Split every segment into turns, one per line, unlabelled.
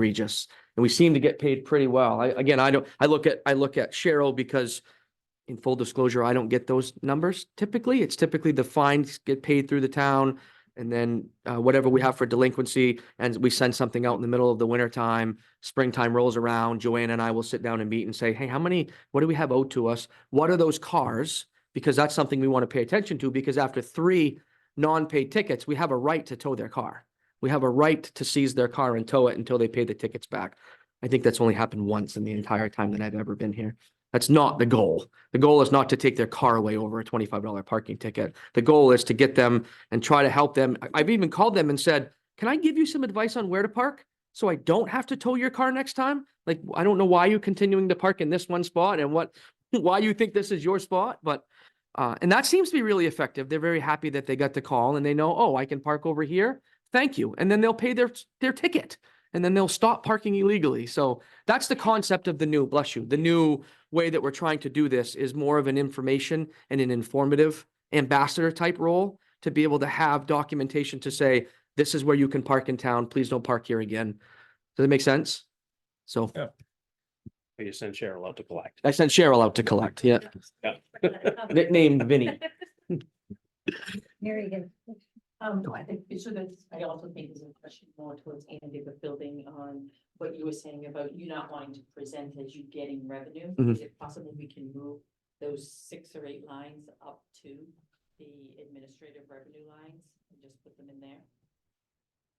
egregious. And we seem to get paid pretty well. I, again, I don't, I look at, I look at Cheryl because in full disclosure, I don't get those numbers typically. It's typically the fines get paid through the town. And then uh, whatever we have for delinquency and we send something out in the middle of the winter time, springtime rolls around, Joanne and I will sit down and meet and say, hey, how many, what do we have owed to us? What are those cars? Because that's something we want to pay attention to because after three non-paid tickets, we have a right to tow their car. We have a right to seize their car and tow it until they pay the tickets back. I think that's only happened once in the entire time that I've ever been here. That's not the goal. The goal is not to take their car away over a twenty-five dollar parking ticket. The goal is to get them and try to help them. I- I've even called them and said, can I give you some advice on where to park? So I don't have to tow your car next time? Like, I don't know why you're continuing to park in this one spot and what, why you think this is your spot, but uh, and that seems to be really effective. They're very happy that they got the call and they know, oh, I can park over here thank you. And then they'll pay their, their ticket and then they'll stop parking illegally. So that's the concept of the new, bless you, the new way that we're trying to do this is more of an information and an informative ambassador type role to be able to have documentation to say, this is where you can park in town. Please don't park here again. Does that make sense? So
We just send Cheryl out to collect.
I sent Cheryl out to collect. Yeah.
Yeah.
Nicknamed Vinny.
Mary again. Um, no, I think, so that's, I also think is a question more towards Andy, but building on what you were saying about you not wanting to present as you getting revenue.
Mm-hmm.
Mhm.
Is it possible we can move those six or eight lines up to the administrative revenue lines and just put them in there?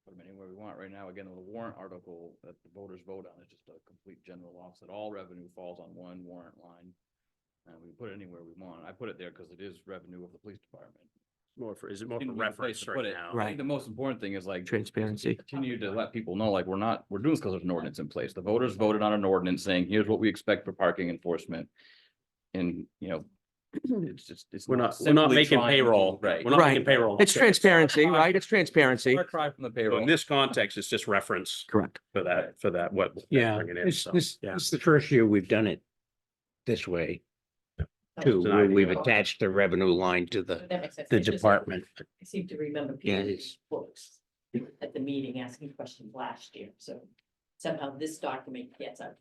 put them anywhere we want. Right now, again, the warrant article that the voters vote on is just a complete general office that all revenue falls on one warrant line. And we put it anywhere we want. I put it there because it is revenue of the police department.
More for, is it more for
Didn't need a place
reference
to put
right
it.
now?
I think The most important thing is like
Transparency.
continue to let people know, like, we're not, we're doing this because there's an ordinance in place. The voters voted on an ordinance saying, here's what we expect for parking enforcement. And, you know, it's just, it's.
We're not, we're not
simply
making
trying to-
payroll.
Right.
We're not
Right.
making payroll.
It's transparency, right? It's transparency.
Far cry from the
So
payroll.
In this context, it's just reference
Correct.
for that, for that, what.
Yeah,
bringing in,
it's,
so,
this,
yeah.
this is the first year we've done it this way too.
an
where
idea.
We've attached the revenue line to the,
That makes sense.
the
It's just-
department.
I seem to remember
Yeah,
people in
it's-
books at the meeting asking questions last year, so somehow this document gets out.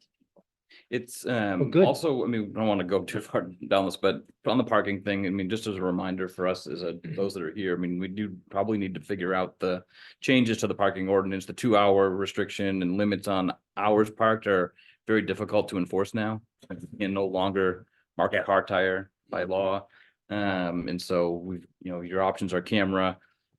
It's um
good.
also, I mean, I don't want to go too far down this, but on the parking thing, I mean, just as a reminder for us as a, those that are here, I mean, we do probably need to figure out the changes to the parking ordinance, the two hour restriction and limits on hours parked are very difficult to enforce now. And no longer mark a
Yeah.
car tire by law. Um, and so we've, you know, your options are camera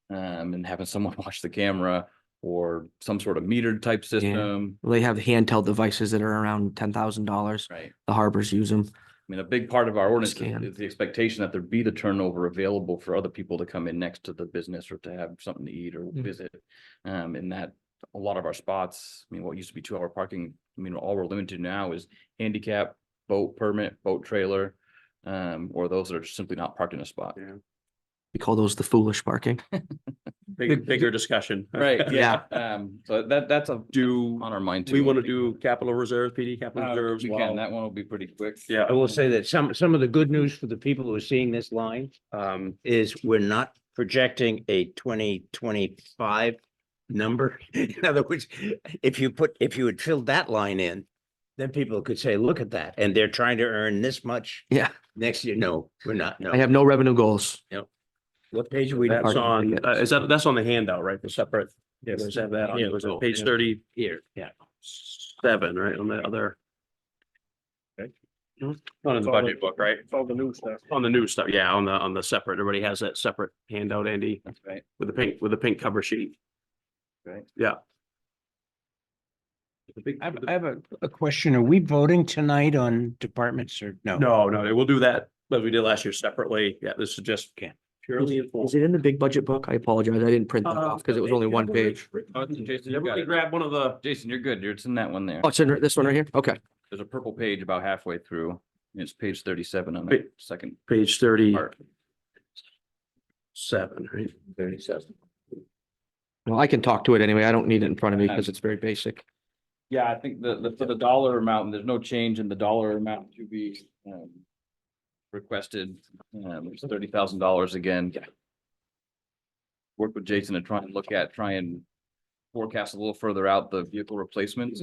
um and having someone watch the camera or some sort of metered type system,
They have handheld devices that are around ten thousand dollars.
right?
The harbors use them.
I mean, a big part of our ordinance
Scan.
is- is the expectation that there be the turnover available for other people to come in next to the business or to have something to eat or visit. Um, and that, a lot of our spots, I mean, what used to be two hour parking, I mean, all we're limited to now is handicap, boat permit, boat trailer. Um, or those that are simply not parked in a spot.
We call those the foolish parking.
Big, bigger discussion.
Right,
Yeah.
yeah, um, so that, that's a do on our mind too.
We want to do capital reserves, PD capital
Uh,
reserves.
We
while-
can, that one will be pretty quick.
Yeah.
I will say that some, some of the good news for the people who are seeing this line
Um,
is we're not projecting a twenty twenty-five number. In other words, if you put, if you had filled that line in, then people could say, look at that, and they're trying to earn this much
Yeah.
next year. No, we're not,
I
no.
have no revenue goals.
What page are we?
that's
parking
on,
ticket.
uh, is that, that's on the handout, right? The separate.
Yes.
Does have that on-
Yeah,
was it
cool.
page
Yeah.
thirty
Here, yeah.
seven, right, on the other.
Okay.
Not in the
all the-
budget book, right?
It's all the new stuff.
On the new stuff, yeah, on the, on the separate, everybody has that separate handout, Andy,
That's right.
with the pink, with the pink cover sheet.
Right.
Yeah.
I have, I have a, a question. Are we voting tonight on departments or no?
No, no, we'll do that, as we did last year separately, yeah, this is just purely
Is
informal.
it in the big budget book? I apologize. I didn't print that
Uh,
off because it was only one page.
Oh, it's- Jason, you got
Everybody
it.
grab one of the,
Jason, you're good, You're- it's in that one there.
Oh, it's in this one right here? Okay.
There's a purple page about halfway through, and it's page thirty-seven on
Wait.
the second
page thirty
part.
seven, right? Thirty seven.
Well, I can talk to it anyway. I don't need it in front of me because it's very basic.
Yeah, I think the, the, for the dollar amount, there's no change in the dollar amount to be, um, requested, um, it's thirty thousand dollars again. Work with Jason to try and look at, try and forecast a little further out the vehicle replacements.